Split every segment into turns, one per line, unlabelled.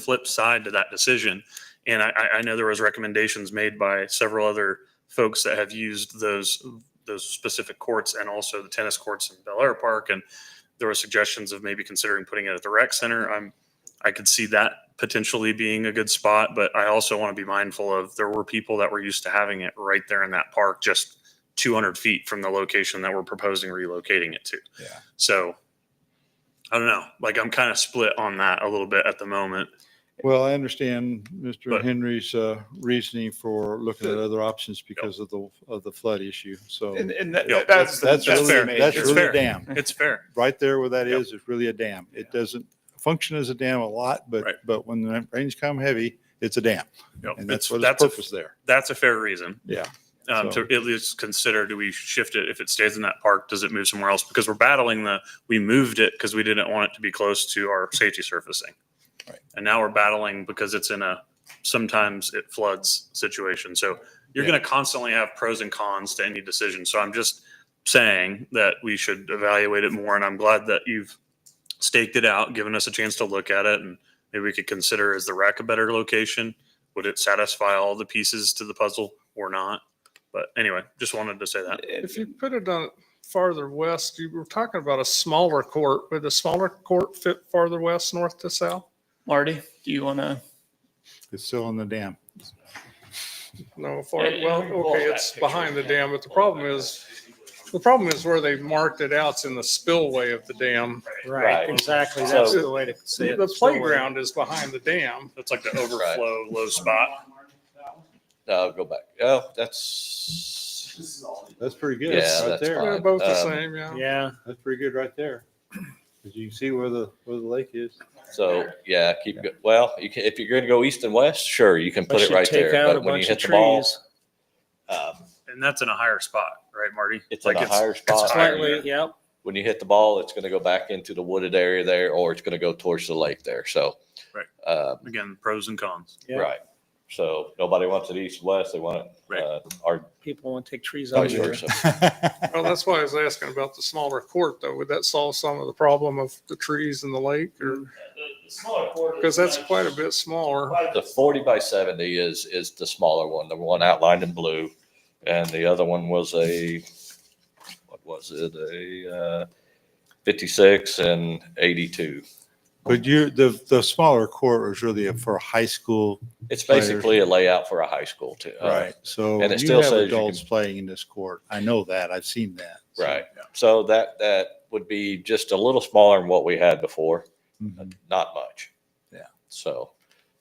flip side to that decision. And I, I- I know there was recommendations made by several other folks that have used those, those specific courts and also the tennis courts in Bel Air Park. And there were suggestions of maybe considering putting it at the rec center. I'm, I could see that potentially being a good spot, but I also want to be mindful of there were people that were used to having it right there in that park, just 200 feet from the location that we're proposing relocating it to.
Yeah.
So I don't know, like I'm kind of split on that a little bit at the moment.
Well, I understand Mr.
But-
Henry's uh, reasoning for looking at other options because of the, of the flood issue. So
And, and that,
Yeah,
that's,
that's
that's
fair.
really,
amazing.
that's
It's
really
fair.
a dam.
It's fair.
Right there where that
Yep.
is, it's really a dam. It
Yeah.
doesn't function as a dam a lot, but,
Right.
but when the rains come heavy, it's a dam.
Yep.
And
It's,
that's what
that's,
its
a,
purpose there.
that's a fair reason.
Yeah.
Um,
So-
to at least consider, do we shift it? If it stays in that park, does it move somewhere else? Because we're battling the, we moved it because we didn't want it to be close to our safety surfacing.
Right.
And now we're battling because it's in a, sometimes it floods situation. So you're
Yeah.
going to constantly have pros and cons to any decision. So I'm just saying that we should evaluate it more. And I'm glad that you've staked it out, given us a chance to look at it. And maybe we could consider is the rack a better location? Would it satisfy all the pieces to the puzzle or not? But anyway, just wanted to say that.
If you put it on farther west, you were talking about a smaller court. Would the smaller court fit farther west, north to south?
Marty, do you want to?
It's still in the dam.
No, far,
Yeah, yeah,
well,
we can pull
okay,
that
it's
picture,
behind the
yeah.
dam, but the problem is, the problem is where they marked it out's in the spillway of the dam.
Right.
Right, exactly. That's
So-
the way to see it.
The
It's way-
playground is behind the dam.
That's like the overflow low spot.
No, I'll go back. Oh, that's
That's pretty good
Yeah,
right
that's
there.
fine.
They're both the
um,
same, yeah.
Yeah,
That's pretty good right there. Because you can see where the, where the lake is.
so. Yeah, keep go- well. You can if you're going to go east and west, sure, you can put
they
it
should
right
take
there.
out a
But when you
bunch of
hit the ball,
trees.
um,
And that's in a higher spot, right, Marty?
it's
Like
in a higher spot.
higher.
Slightly, yep.
When you hit the ball, it's going to go back into the wooded area there, or it's going to go towards the lake there. So,
Right.
um,
Again, pros and cons.
Yeah.
right. So nobody wants it east and west. They want it.
Right.
Uh, our
People want to take trees out
vice
of there.
versa.
Well, that's why I was asking about the smaller court though. Would that solve some of the problem of the trees in the lake or, because that's quite a bit smaller.
The forty by seventy is is the smaller one, the one outlined in blue, and the other one was a what was it a uh, fifty six and eighty two.
But you, the, the smaller court was really for high school
It's basically a layout for a high school too. uh,
Right, so
and it
you
still
have
says you
adults playing in this court. I know that, I've seen that. So-
Right. So that that would be just a little smaller than what we had before,
Mhm.
not much.
Yeah.
So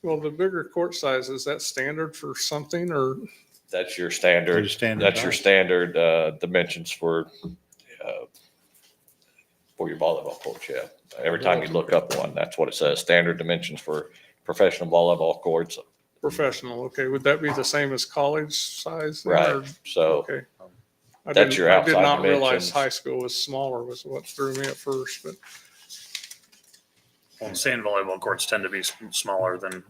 Well, the bigger court size, is that standard for something or?
that's your
Pretty
standard.
standard
That's your
size.
standard uh, dimensions for uh, for your volleyball court. Yeah. Every time you look up one, that's what it says. Standard dimensions for professional volleyball courts.
Professional, okay. Would that be the same as college size? then,
Right.
or-
So
Okay. I
That's
didn't-
your
I did
outside
not realize
dimensions.
high school was smaller was what threw me at first, but
Sand volleyball courts tend to be s- smaller than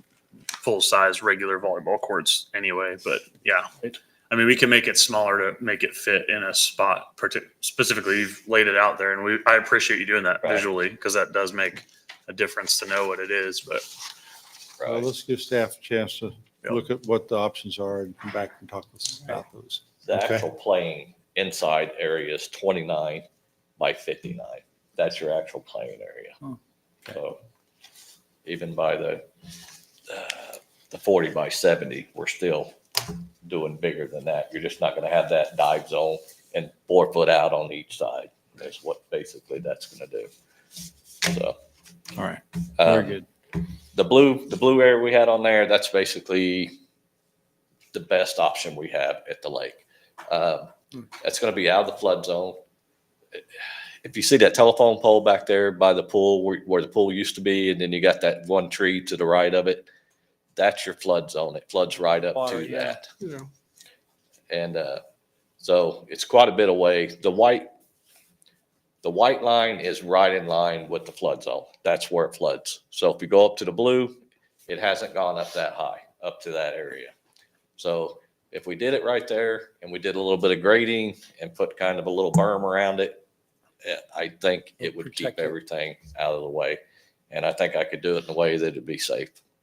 full-size regular volleyball courts anyway, but yeah.
Right.
I mean, we can make it smaller to make it fit in a spot parti- specifically. You've laid it out there and we, I appreciate you doing that
Right.
visually because that does make a difference to know what it is, but
uh,
Well, let's give staff a chance to
Yeah.
look at what the options are and come back and talk with us about those.
the
Okay.
actual playing inside area is 29 by 59. That's your actual playing area.
Hmm.
So even by the, uh, the 40 by 70, we're still doing bigger than that. You're just not going to have that dive zone and four foot out on each side. That's what basically that's going to do. So.
All right,
um,
very good.
the blue the blue area we had on there that's basically the best option we have at the lake um, that's going to be out of the flood zone if you see that telephone pole back there by the pool where, where the pool used to be and then you got that one tree to the right of it that's your flood zone it floods right up
Water,
to
yeah.
that
you know,
and uh, so it's quite a bit away. The white, the white line is right in line with the flood zone. That's where it floods. So if you go up to the blue, it hasn't gone up that high, up to that area. So if we did it right there and we did a little bit of grading and put kind of a little berm around it, eh, I think it would keep
Protect it.
everything out of the way. And I think I could do it in a way that it'd be safe